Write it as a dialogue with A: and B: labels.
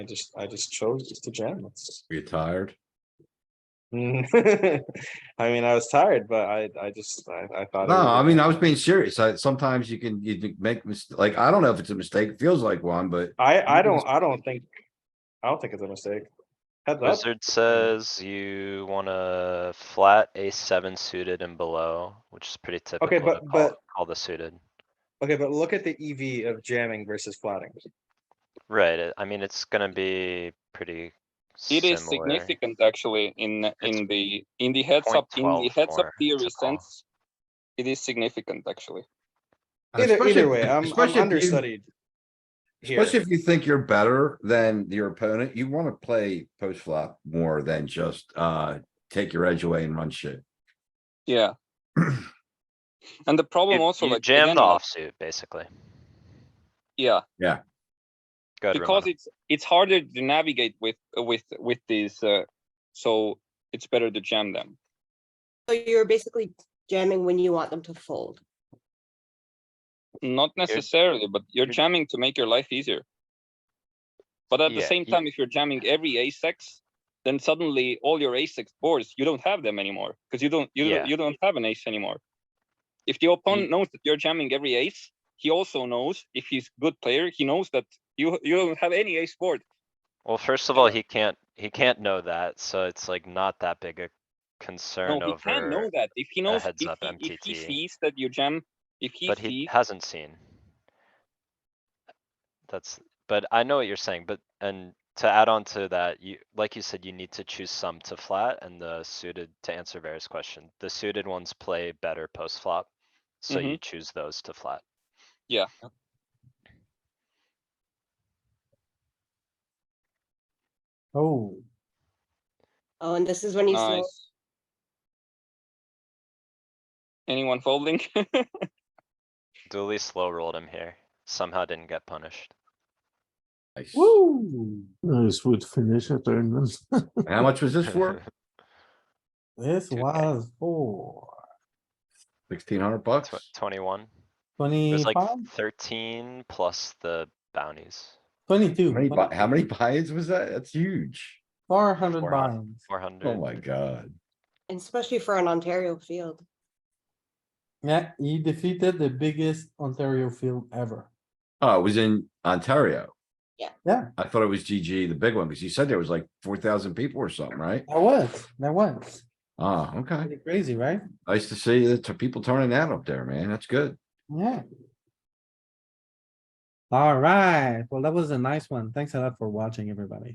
A: I just, I just chose just to jam. It's-
B: Are you tired?
A: Mm. I mean, I was tired, but I, I just, I, I thought. it
B: No,
A: was
B: I
A: a-
B: mean, I was being serious. I, sometimes you can, you can make, mis- like, I don't know if it's a mistake, it feels like one, but
A: I, I
B: it was-
A: don't, I don't think, I don't think it's a mistake. Heads up,
C: Wizard says you wanna flat ace seven suited and below, which is pretty typical to
A: but-
C: call,
A: but-
C: call the suited.
A: okay, but look at the
B: E
A: EV of jamming versus flatting.
C: Right, it- I mean, it's gonna be pretty
D: It
C: similar.
D: is significant actually in, in the, in the heads up, in the heads up
C: 0.12
D: theory
C: to call.
D: sense. It is significant actually.
A: Either,
B: especially-
A: either way, I'm,
B: especially if
A: I'm
B: you-
A: understudied. Here,
B: Especially if you think you're better than your opponent, you wanna play post flop more than just, uh, take your edge away and run shit.
D: Yeah. And the problem
C: You
D: also
C: you
D: like.
C: jammed
D: again,
C: the
D: like-
C: offsuit, basically.
D: Yeah,
C: Go ahead,
D: because
C: Ramona.
D: it's, it's harder to navigate with, with, with these, uh, so it's better to jam them.
E: So you're basically jamming when you want them to fold.
D: Not necessarily, but you're
C: you're-
D: jamming to make your life easier. But at the
C: Yeah,
D: same
C: you-
D: time, if you're jamming every ace X, then suddenly all your ace X boards, you don't have them anymore, because you don't, you
C: Yeah. Mm.
D: don't, you don't have an ace anymore. If the opponent knows that you're jamming every ace, he also knows, if he's good player, he knows that you, you don't have any ace board.
C: Well, first of all, he can't, he can't know that, so it's like not that big a concern
D: No, he can know
C: over,
D: that, if he knows, if
C: heads
D: he,
C: up
D: if he
C: MTT.
D: sees that you jam, if he
C: but he
D: sees,
C: hasn't seen. That's, but I know what you're saying, but, and to add on to that, you, like you said, you need to choose some to flat and the suited, to answer Vera's question, the suited ones play better post flop. So you choose those to flat.
D: Yeah.
F: Oh,
E: Oh, and this is when you slow,
D: nice. Anyone folding?
C: Dooley slow rolled him here, somehow didn't get punished.
B: Nice.
F: woo. This would finish a tournament.
B: And How much was this for?
F: This
C: Two K.
F: was four,
B: Sixteen hundred bucks?
C: Tw- Twenty-one, it was like
F: twenty-five,
C: thirteen plus the bounties,
B: How many,
F: twenty-two,
B: bu- how many buy-ins was that? That's huge.
F: four hundred
C: 400.
F: binds.
C: four hundred.
B: Oh my god.
E: and especially for an Ontario field.
F: Yeah, he defeated the biggest Ontario field ever.
B: Oh, it was in Ontario.
E: Yeah.
F: Yeah.
B: I thought it was GG, the big one, because you said there was like four thousand people or something, right?
F: That was, that was
B: Ah, okay.
F: pretty crazy, right?
B: Nice to see the t- people turning out up there, man. That's good.
F: Yeah. Alright, well, that was a nice one. Thanks a lot for watching, everybody.